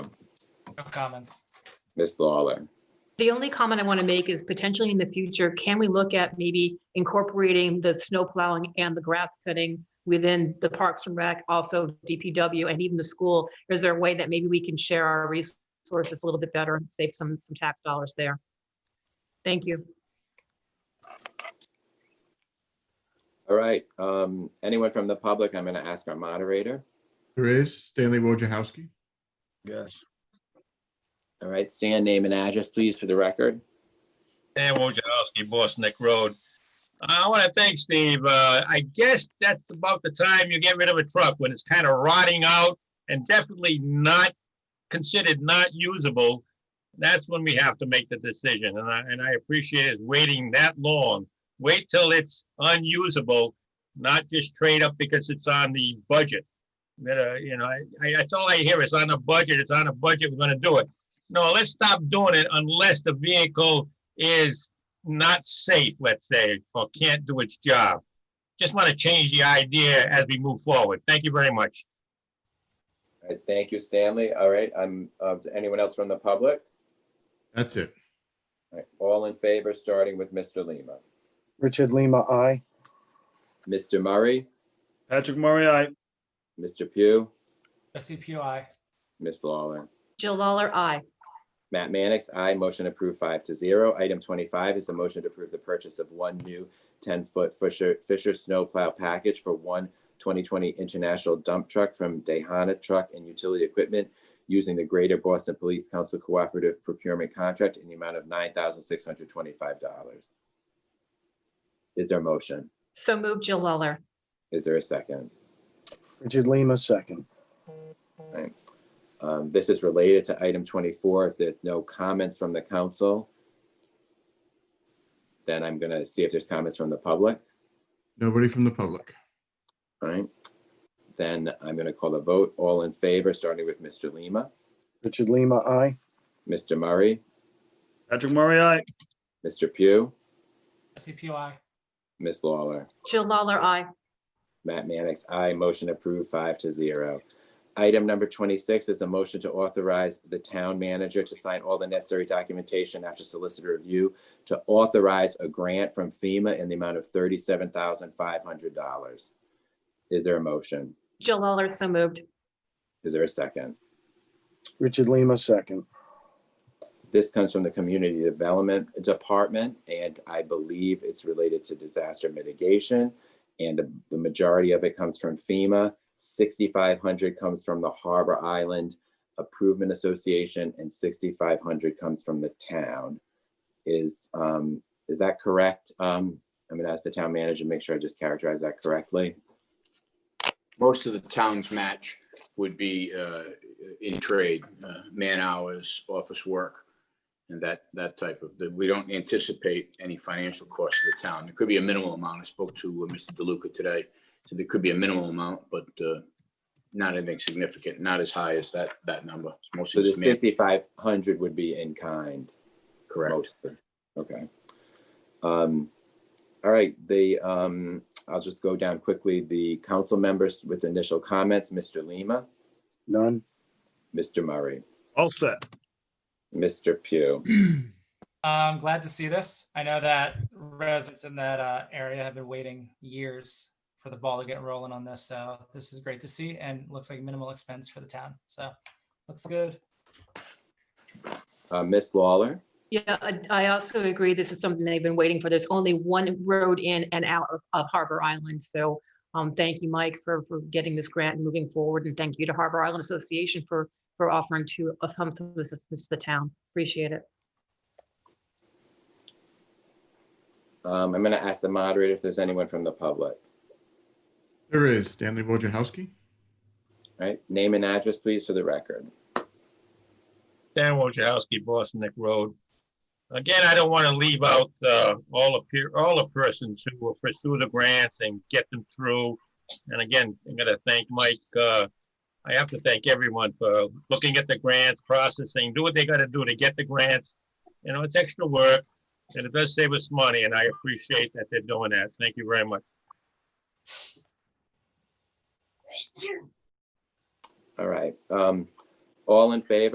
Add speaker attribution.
Speaker 1: comments.
Speaker 2: Ms. Lawler,
Speaker 3: The only comment I want to make is potentially in the future, can we look at maybe incorporating the snow plowing and the grass cutting within the Parks and Rec, also DPW and even the school? Is there a way that maybe we can share our resources a little bit better and save some, some tax dollars there? Thank you.
Speaker 2: all right, um, anyone from the public, I'm gonna ask our moderator.
Speaker 4: There is Stanley Wojciechowski.
Speaker 5: Yes.
Speaker 2: All right, stand name and address, please, for the record.
Speaker 5: And Wojciechowski, Boss Neck Road. Uh, I want to thank Steve. Uh, I guess that's about the time you get rid of a truck when it's kind of rotting out and definitely not considered not usable. That's when we have to make the decision. And I, and I appreciate it waiting that long. Wait till it's unusable, not just trade up because it's on the budget. That, uh, you know, I, I, that's all I hear. It's on the budget. It's on the budget. We're going to do it. No, let's stop doing it unless the vehicle is not safe, let's say, or can't do its job. Just want to change the idea as we move forward. Thank you very much.
Speaker 2: All right, thank you, Stanley. All right, I'm, uh, anyone else from the public?
Speaker 4: That's it.
Speaker 2: All right, All in favor, starting with Mr. Lima.
Speaker 6: Richard Lima, I.
Speaker 2: Mr. Murray,
Speaker 7: Patrick Murray, I.
Speaker 2: Mr. Pugh,
Speaker 1: Trustee Pugh, aye.
Speaker 2: Ms. Lawler.
Speaker 3: Jill Lawler, aye.
Speaker 2: Matt Manix, I Motion approved five to zero. Item twenty-five is a motion to approve the purchase of one new ten-foot Fisher, Fisher snowplow package for one 2020 international dump truck from Dehana Truck and Utility Equipment using the Greater Boston Police Council Cooperative Procurement Contract in the amount of nine thousand six hundred twenty-five dollars. Is there a motion?
Speaker 3: So move Jill Lawler.
Speaker 2: Is there a second?
Speaker 6: Richard Lima, second.
Speaker 2: Um, this is related to item twenty-four. If there's no comments from the council, then I'm gonna see if there's comments from the public,
Speaker 4: Nobody from the public.
Speaker 2: All right? Then I'm gonna call a vote. All in favor, starting with Mr. Lima,
Speaker 6: Richard Lima, I.
Speaker 2: Mr. Murray,
Speaker 7: Patrick Murray, I.
Speaker 2: Mr. Pugh,
Speaker 1: Trustee Pugh, aye.
Speaker 2: Ms. Lawler.
Speaker 3: Jill Lawler, aye.
Speaker 2: Matt Manix, I Motion approved five to zero. Item number twenty-six is a motion to authorize the town manager to sign all the necessary documentation after solicitor review to authorize a grant from FEMA in the amount of thirty-seven thousand five hundred dollars. Is there a motion?
Speaker 3: Jill Lawler, so moved.
Speaker 2: Is there a second?
Speaker 6: Richard Lima, second.
Speaker 2: This comes from the Community Development Department, and I believe it's related to disaster mitigation. And the- the majority of it comes from FEMA. 6,500 comes from the Harbor Island Improvement Association, and 6,500 comes from the town. Is, um, is that correct? Um, I'm gonna ask the town manager, make sure I just characterize that correctly.
Speaker 8: most of the town's match would be uh, in trade, uh, man hours, office work, and that, that type of, that we don't anticipate any financial cost to the town. There could be a minimal amount. I spoke to uh, Mr. DeLuca today, so there could be a minimal amount, but uh, not anything significant, not as high as that, that number. It's
Speaker 2: So
Speaker 8: Mostly
Speaker 2: the
Speaker 8: just man,
Speaker 2: 6,500 would be in kind.
Speaker 8: correct.
Speaker 2: Mostly. Okay. Um, all right, the, um, I'll just go down quickly. The council members with initial comments, Mr. Lima,
Speaker 6: None.
Speaker 2: Mr. Murray,
Speaker 7: All set.
Speaker 2: Mr. Pugh,
Speaker 1: I'm Um, glad to see this. I know that residents in that uh, area have been waiting years for the ball to get rolling on this. So this is great to see and looks like minimal expense for the town. So looks good.
Speaker 2: uh, Ms. Lawler,
Speaker 3: Yeah, I- I also agree. This is something they've been waiting for. There's only one road in and out of- of Harbor Island. So um, thank you, Mike, for, for getting this grant and moving forward. And thank you to Harbor Island Association for, for offering to uh, some some assistance to the town. Appreciate it.
Speaker 2: um, I'm gonna ask the moderator if there's anyone from the public,
Speaker 4: There is Stanley Wojciechowski.
Speaker 2: All right? Name and address, please, for the record.
Speaker 5: Dan Wojciechowski, Boss Neck Road. Again, I don't want to leave out uh, all the, peer- all the persons who will pursue the grants and get them through. And again, I'm going to thank Mike. uh, I have to thank everyone for looking at the grants, processing, do what they got to do to get the grants. You know, it's extra work, and it does save us money, and I appreciate that they're doing that. Thank you very much.
Speaker 2: All right, um, all in favor?